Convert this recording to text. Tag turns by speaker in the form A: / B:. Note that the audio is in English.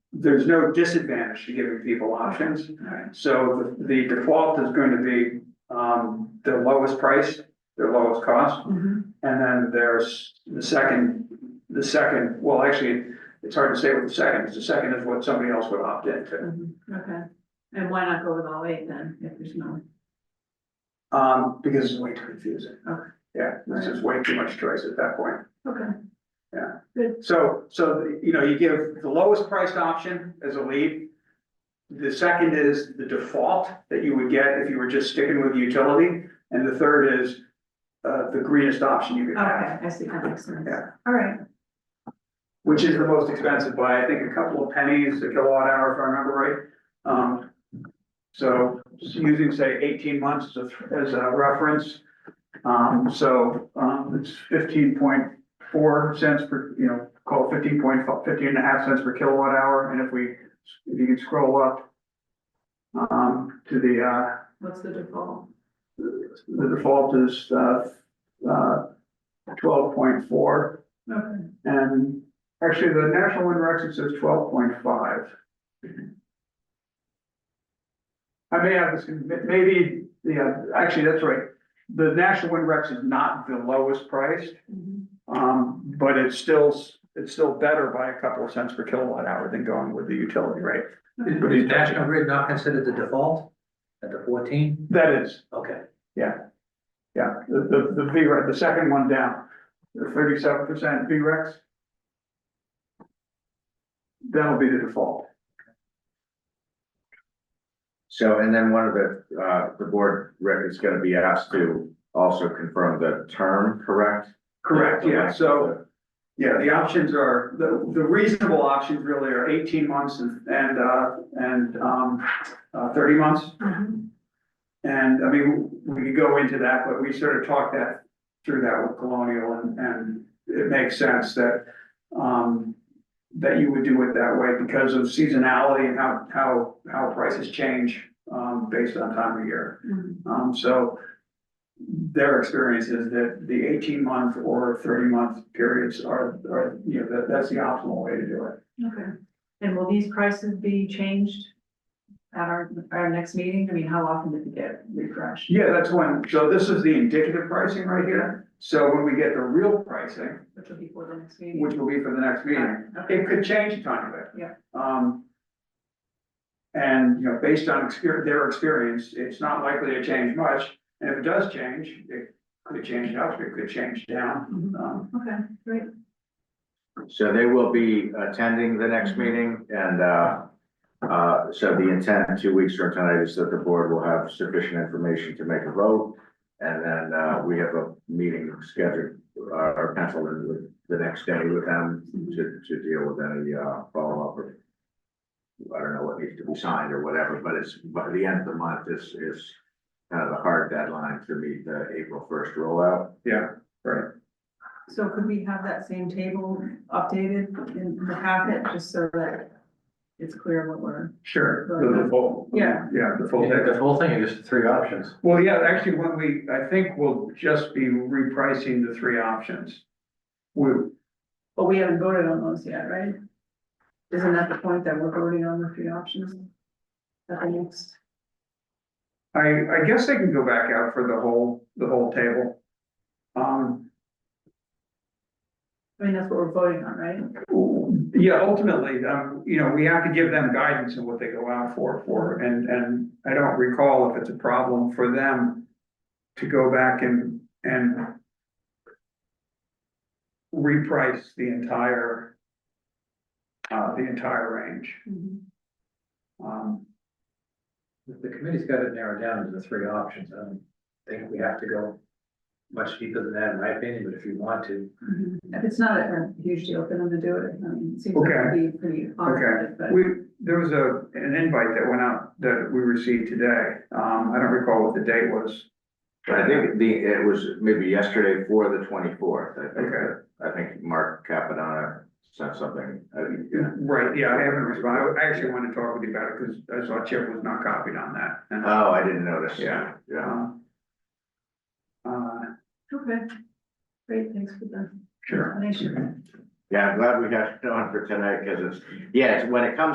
A: there's no disadvantage to giving people options. So the the default is going to be, um, the lowest price, the lowest cost.
B: Mhm.
A: And then there's the second, the second, well, actually, it's hard to say what the second is. The second is what somebody else would opt into.
B: Mhm. Okay, and why not go with all eight then, if there's no,
A: Um, because it's way too confusing.
B: Okay.
A: Yeah, there's just way too much choice at that point.
B: okay,
A: So, so, you know, you give the lowest priced option as a lead. The second is the default that you would get if you were just sticking with utility, and the third is uh, the greenest option you could have,
B: okay, I see, that makes sense.
A: Yeah.
B: All right,
A: which is the most expensive by, I think, a couple of pennies a kilowatt hour, if I remember right. Um, so just using, say, eighteen months as a, as a reference. Um, so, um, it's fifteen point four cents per, you know, call it fifteen point, fifteen and a half cents per kilowatt hour, and if we, if you can scroll up. Um, to the, uh,
B: what's the default?
A: the default is, uh, uh, twelve point four.
B: Okay,
A: And actually, the National Wind Rex, it says twelve point five. I may have this, maybe, yeah, actually, that's right. The National Wind Rex is not the lowest priced,
B: Mhm.
A: um, but it's still, it's still better by a couple of cents per kilowatt hour than going with the utility rate.
B: Okay.
A: But
C: Is National Grid not considered the default at the fourteen?
A: That is,
C: Okay.
A: yeah, the, the, the V-Rex, the second one down, the thirty-seven percent V-Rex. That'll be the default.
D: So, and then one of the, uh, the board rep is gonna be asked to also confirm the term, correct?
A: Correct,
D: The
A: yeah,
D: length
A: so.
D: of
A: Yeah, the options are, the, the reasonable options really are eighteen months and, and, uh, and, um, uh, thirty months.
B: Mhm.
A: And, I mean, we could go into that, but we sort of talked that, through that with Colonial and, and it makes sense that, um, that you would do it that way because of seasonality and how, how, how prices change, um, based on time of year.
B: Mhm.
A: Um, so their experience is that the eighteen month or thirty month periods are, are, you know, that, that's the optimal way to do it.
B: Okay, and will these prices be changed at our, our next meeting? I mean, how often did they get refreshed?
A: Yeah, that's one. So this is the indicative pricing right here. So when we get the real pricing,
B: Which will be for the next meeting?
A: which will be for the next meeting,
B: Okay,
A: it could change a tiny bit.
B: Yeah.
A: Um, and, you know, based on exper- their experience, it's not likely to change much. And if it does change, it could change up, it could change down.
B: Mhm.
A: Um,
B: okay, great,
D: the- So they will be attending the next meeting and, uh, uh, so the intent two weeks from tonight is that the board will have sufficient information to make a vote. And then, uh, we have a meeting scheduled, uh, or penciled in with the next day with them to, to deal with any, uh, follow-up or I don't know what needs to be signed or whatever, but it's, by the end of the month is, is kind of the hard deadline to meet the April first rollout.
B: so could we have that same table updated in the packet, just so that it's clear what we're,
A: Sure, the the full.
B: Yeah.
A: Yeah, the full.
C: The whole thing is just three options.
A: Well, yeah, actually, when we, I think we'll just be repricing the three options. We,
B: but we haven't voted on those yet, right? Isn't that the point that we're voting on the three options? At the next,
A: I, I guess I can go back out for the whole, the whole table. Um,
B: I mean, that's what we're voting on, right?
A: yeah, ultimately, um, you know, we have to give them guidance on what they go out for, for, and, and I don't recall if it's a problem for them to go back and, and reprice the entire, uh, the entire range.
B: Mhm.
A: Um,
C: The committee's got it narrowed down to the three options. I don't think we have to go much deeper than that, in my opinion, but if you want to.
B: Mhm. If it's not a a huge deal for them to do it, I mean, it seems like it'd be pretty
A: okay,
B: automatic, but.
A: we, there was a, an invite that went out that we received today, um, I don't recall what the date was.
D: I think the, it was maybe yesterday for the twenty-fourth. I think,
A: Okay.
D: I think Mark Capadonna sent something. I think, yeah.
A: Right, yeah, I haven't responded, I actually wanted to talk with you about it, cause I saw Chip was not copied on that. and,
D: Oh, I didn't notice.
A: Yeah.
D: Yeah.
A: um, Uh,
B: Okay, great, thanks for the
A: sure.
B: explanation.
D: Yeah, I'm glad we got it on for tonight because it's, yeah, it's- when it comes